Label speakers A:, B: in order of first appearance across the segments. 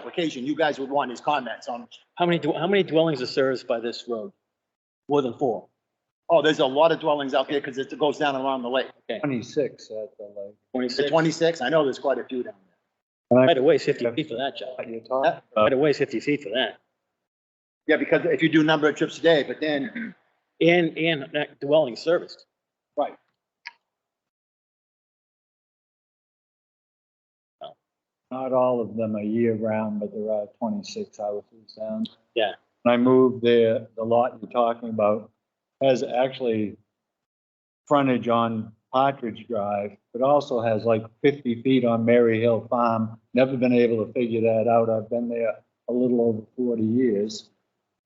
A: application, you guys would want his comments on,
B: How many, dw- how many dwellings are serviced by this road? More than four.
A: oh, there's a lot of dwellings out there because it goes down around the lake.
C: Twenty-six at the
A: The
B: Twenty-six.
A: twenty-six, I know there's quite a few down there.
B: Right away is fifty feet for that, John.
C: lake. You're talking.
B: Right away is fifty feet for that.
A: Yeah, because if you do number of trips a day, but then,
B: And, and that dwelling serviced.
A: Right.
C: Not all of them are year-round, but there are twenty-six houses down.
B: Yeah.
C: And I moved there, the lot you're talking about has actually frontage on Partridge Drive, but also has like fifty feet on Mary Hill Farm. Never been able to figure that out. I've been there a little over forty years.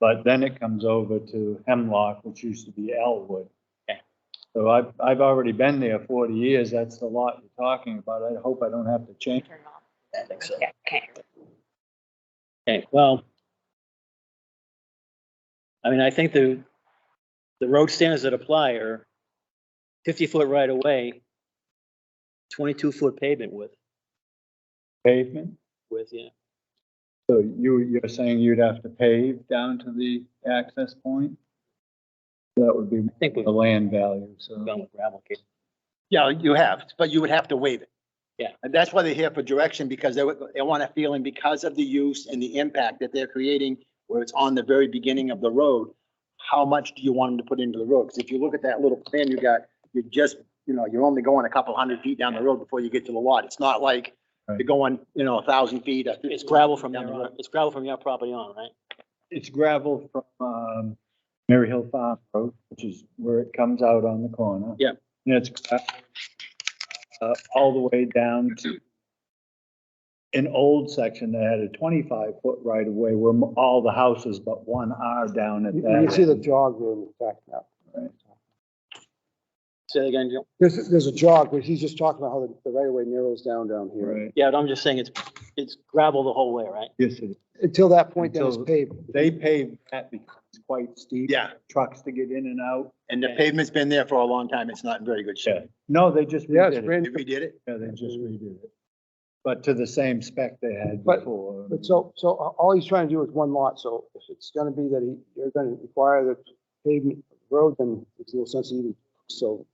C: But then it comes over to Hemlock, which used to be Elwood.
B: Okay.
C: So I've, I've already been there forty years. That's the lot you're talking about. I hope I don't have to change
D: Turn it off.
B: I think so.
D: Yeah, okay.
B: Okay, well. I mean, I think the, the road standards that apply are fifty foot right away, twenty-two foot pavement width,
C: pavement.
B: with, yeah.
C: So you, you're saying you'd have to pave down to the access point? That would be
B: I think we've
C: the land value, so.
B: gone with gravel. okay.
A: yeah, you have, but you would have to waive it.
B: Yeah.
A: And that's why they're here for direction, because they, would- they want a feeling because of the use and the impact that they're creating, where it's on the very beginning of the road, how much do you want them to put into the road? Because if you look at that little plan you got, you're just, you know, you're only going a couple hundred feet down the road before you get to the lot. It's not like
C: Right.
A: you're going, you know, a thousand feet. or
B: It's gravel from
A: down
B: there
A: the
B: on,
A: road.
B: it's gravel from your property on, right?
C: It's gravel from, um, Mary Hill Farm Road, which is where it comes out on the corner.
B: Yeah.
C: And it's, gra- uh, all the way down to an old section that had a twenty-five foot right of way where m- all the houses but one are down at
E: You
C: that.
E: you see the
C: end.
E: jog there in the back now.
C: Right.
B: Say that again, Joe.
E: There's, there's a jog, but he's just talking about how the- the right of way narrows down down here.
C: Right,
B: Yeah, but I'm just saying it's, it's gravel the whole way, right?
C: yes, it is.
E: Until that point, then it's
C: Until-
E: paved.
C: They paved that because it's quite steep.
A: Yeah,
C: Trucks to get in and out.
A: and the pavement's been there for a long time. It's not in very good shape.
C: No, they just
E: Yeah, it's
C: redid it.
E: brand,
A: If we did it,
C: Yeah, they just redid it. But to the same spec they had
E: But-
C: before.
E: but so, so a- all he's trying to do is one lot, so if it's gonna be that he, you're gonna require the pavement road, then it's no sense even, so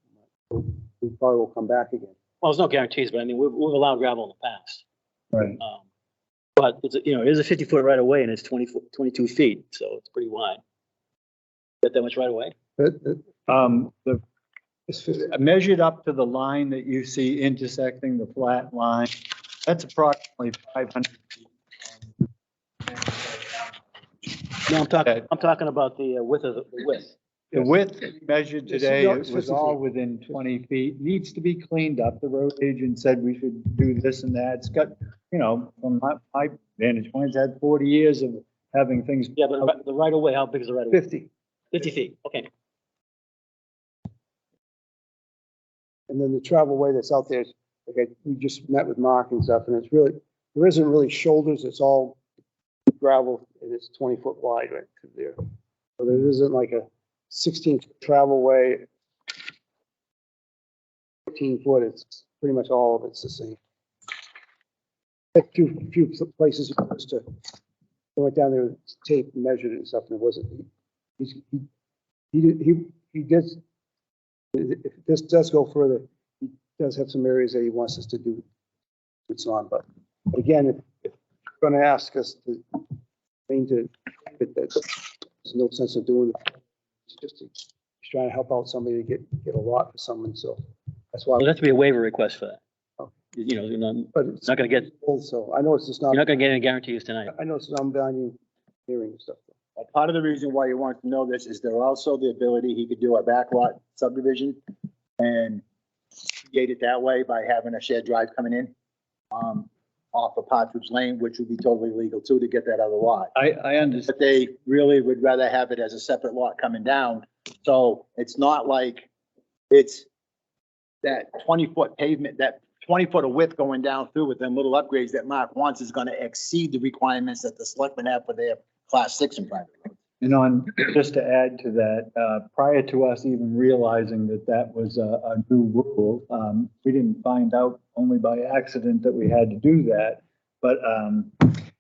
E: we probably will come back again.
B: Well, there's no guarantees, but I mean, we've, we've allowed gravel in the past.
C: Right,
B: Um, But it's, a- you know, it is a fifty foot right away, and it's 20 foot- 22 feet, so it's pretty wide. Got that much right away?
E: But, uh,
C: um, the,
E: it's fifty-
C: measured up to the line that you see intersecting the flat line, that's approximately five hundred.
B: No, I'm talking,
C: Okay.
B: I'm talking about the uh, width of, the the width.
C: The width measured
E: It's
C: today,
E: not-
C: it
E: it's
C: was
E: 50
C: all
E: feet.
C: within twenty feet, needs to be cleaned up. The road agent said we should do this and that. It's got, you know, from my, my vantage point, it's had forty years of having things.
B: Yeah, but ri- the right away, how big is the right away?
E: Fifty,
B: Fifty feet, okay.
E: and then the travel way that's out there is, like, I- we just met with Mark and stuff, and it's really, there isn't really shoulders, it's all gravel, and it's twenty foot wide right through there. So there isn't like a sixteen foot travel way. Fourteen foot, it's pretty much all of it's the same. A few, few places just to, I went down there, with tape measured it and stuff, and it wasn't, he's, he, he, did- he, he did if this does go further, he does have some areas that he wants us to do it's on, but but again, if, if you're gonna ask us to, thing to, that, that's, there's no sense of doing it. It's just, he's trying to help out somebody to get, get a lot for someone, so that's why,
B: There'll have to be a waiver request for that.
E: Oh.
B: You you know, you're not, you're
E: but it's
B: not gonna get, you're
E: also, I know it's just not,
B: not gonna get any guarantees tonight.
E: I know it's non-binding hearing and stuff.
A: Uh, part of the reason why you want to know this is there also the ability he could do a backlot subdivision and gate it that way by having a shared drive coming in, um, off of Partridge Lane, which would be totally legal too, to get that other lot.
C: I, I understand.
A: But they really would rather have it as a separate lot coming down. So it's not like it's that twenty foot pavement, that twenty foot of width going down through with them little upgrades that Mark wants is gonna exceed the requirements that the selectmen have for their class six and private.
C: And on, just to add to that, uh, prior to us even realizing that that was a, a new rule, um, we didn't find out only by accident that we had to do that. But, um,